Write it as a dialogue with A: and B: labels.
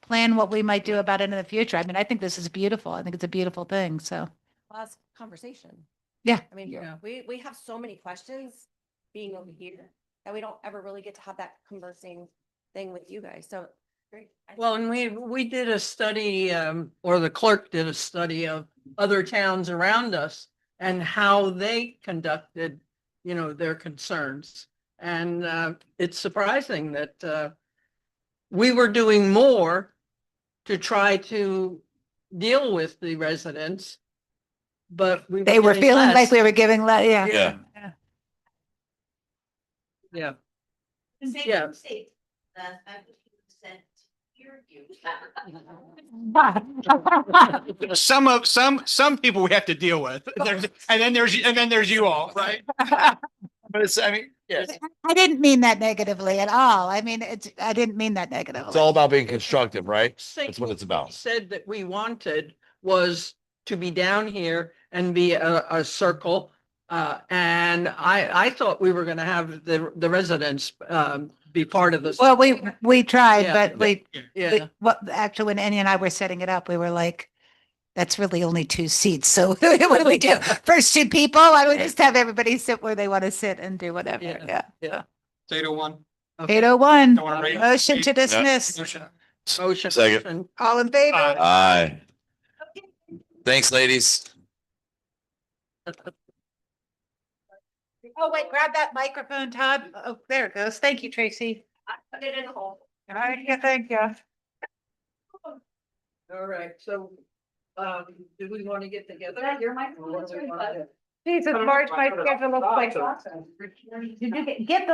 A: plan what we might do about it in the future. I mean, I think this is beautiful. I think it's a beautiful thing. So,
B: last conversation.
A: Yeah.
B: I mean,
C: Yeah.
B: we, we have so many questions being over here that we don't ever really get to have that conversing thing with you guys. So. great. I think
C: Well, and we, we did a study, um, or the clerk did a study of other towns around us and how they conducted, you know, their concerns. And, uh, it's surprising that, uh, we were doing more to try to deal with the residents. But we.
A: they were
C: getting
A: feeling like
C: less.
A: we were giving, le- yeah.
D: Yeah.
C: Yeah,
E: The same
C: Yeah.
E: mistake that I would sent to your view.
F: Some of, some, some people we have to deal with. There's- And then there's, and then there's you all, right? But it's, I mean, yes.
A: I didn't mean that negatively at all. I mean, it's, I didn't mean that negatively.
D: It's all about being constructive, right?
C: That's
D: That's what it's about.
C: said that we wanted was to be down here and be a, a circle. Uh, and I, I thought we were gonna have the, the residents, um, be part of this.
A: Well, we, we tried,
C: Yeah.
A: but we,
C: Yeah,
A: we- what, actually, when Annie and I were setting it up, we were like, that's really only two seats. So what do we do? First two people, why don't we just have everybody sit where they want to sit and do whatever?
C: Yeah.
A: Yeah.
F: Eight oh one.
A: Eight oh one,
F: Don't wanna rate-
A: motion to dismiss.
C: motion.
D: Second.
C: motion.
A: All in
D: Uh,
A: favor?
D: Aye. Thanks, ladies.
A: Oh, wait, grab that microphone, Todd. Oh, there it goes. Thank you, Tracy.
E: I put it in the hole.
A: All right, yeah, thank you.
C: All right, so, um, do we want to get together?
E: Yeah, you're my
C: Or what do we
E: influencer,
C: wanna
E: but-
C: do?
A: Jesus, March, my schedule looks like.
E: Get the